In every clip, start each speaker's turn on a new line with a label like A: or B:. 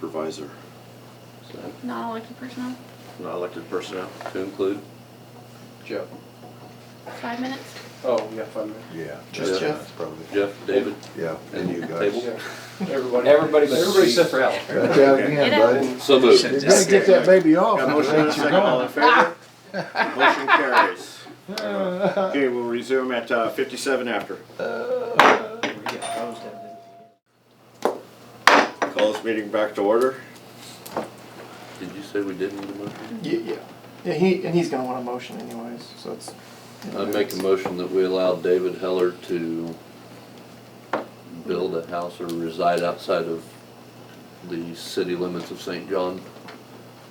A: supervisor. So,
B: Not elected personnel,
A: Not elected personnel to include.
C: Joe.
B: five minutes.
C: Oh, yeah, five minutes.
D: Yeah.
A: Just
D: yeah,
A: Jeff?
D: that's Probably.
A: Jeff, David,
D: Yeah, and you
A: Table?
D: guys.
C: Yeah. Everybody. Everybody but Everybody except for Alan.
D: Back out again,
B: Get
D: buddy.
A: so
D: You
A: moved.
D: gotta get that baby off.
A: Got a
D: and
A: motion and a
D: let Oh, you
A: second, all in
D: go.
A: favor? Motion carries. Okay, we'll resume at uh, fifty-seven after. Call this meeting back to order. Did you say we didn't need a motion?
E: Yeah, yeah, yeah. He and he's gonna want a motion anyways, so it's. you know,
A: I'd make a
E: it's-
A: motion that we allow David Heller to build a house or reside outside of the city limits of St. John,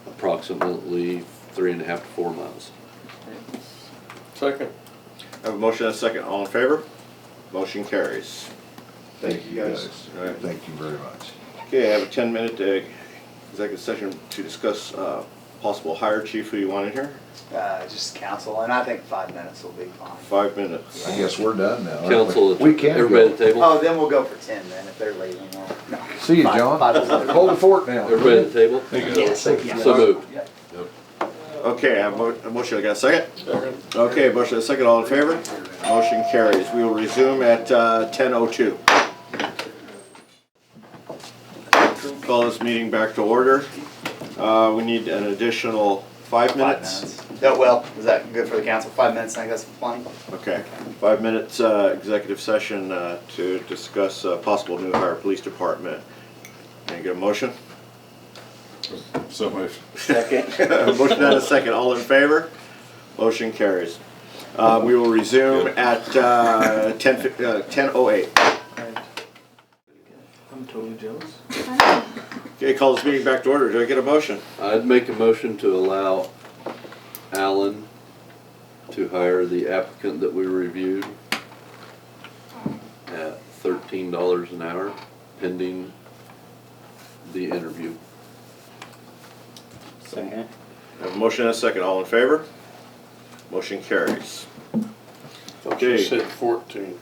A: approximately three and a half to four miles.
C: Second.
A: Have a motion and a second, all in favor? Motion carries.
C: Thank you guys.
A: All right.
D: Thank you very much.
A: Okay, I have a ten-minute uh, executive session to discuss uh, possible hire chief who you want in here,
F: Uh, just council, and I think five minutes will be fine.
A: five minutes.
D: I guess we're done now. aren't we?
A: Council,
D: We can
A: everybody
D: go.
A: at the table?
F: Oh, then we'll go for ten then, if they're leaving, we'll, no.
D: See you,
F: Five-
D: John.
F: five is okay.
D: Hold the fort now.
A: Everybody at the table?
F: Yes, yes.
A: So moved.
F: Yep.
A: Okay, I have mo- a motion, I got a second? Okay, motion, and a second, all in favor? Motion carries. We will resume at uh, 10:02. Call this meeting back to order. Uh, We need an additional five
F: Five
A: minutes.
F: minutes. Oh, well, is that good for the council? Five minutes, I think that's plenty.
A: Okay, five minutes uh, executive session uh, to discuss uh, possible new hire police department. Can you get a motion?
D: So moved.
A: Motion and a second, all in favor? Motion carries. Uh, We will resume at uh, 10, fif- uh, 10:08.
E: I'm totally jealous.
A: Okay, call this meeting back to order, do I get a motion?
G: I'd make a motion to allow Alan to hire the applicant that we reviewed at thirteen dollars an hour pending the interview.
C: Second.
A: I Have a motion and a second, all in favor? Motion carries.
H: You
A: Okay,
H: said fourteen.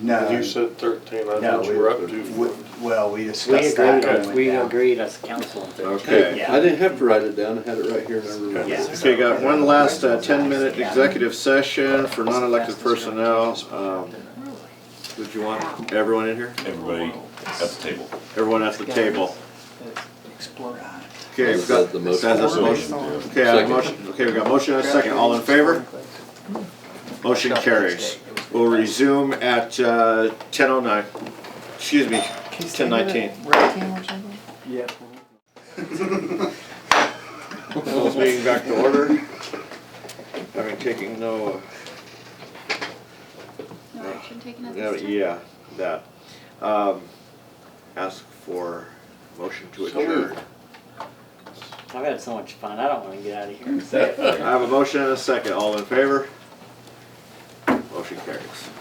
F: No,
H: You said thirteen. I
F: No,
H: thought
F: we-
H: you were up to.
F: we- well, we
C: We
F: discussed that.
C: agreed,
F: going
C: we
F: down.
C: agreed as council.
A: okay.
F: Yeah.
G: I didn't have to write it down, I had it right here and I remembered.
F: Yeah.
A: Okay, got one last ten-minute executive session for non-elected personnel. Um, Would you want everyone in here?
I: everybody at the table.
A: Everyone at the table.
E: Explode.
A: Okay, we've got,
G: That's the
A: that's
G: motion.
A: that's the motion. Okay, I have a
G: Second.
A: motion, okay, we got a motion and a second, all in favor? Motion carries. We'll resume at, uh, ten oh nine, excuse me,
E: Can you
A: ten nineteen.
E: say that? Red team or something?
C: Yeah.
A: Close meeting back to order. Having taken no,
B: No action taken
A: uh,
B: at
A: no,
B: this time.
A: yeah, that. Um, ask for motion to
H: So
A: adjourn.
H: moved.
C: I've had so much fun, I don't wanna get out of here.
A: I have a motion and a second, all in favor? Motion carries.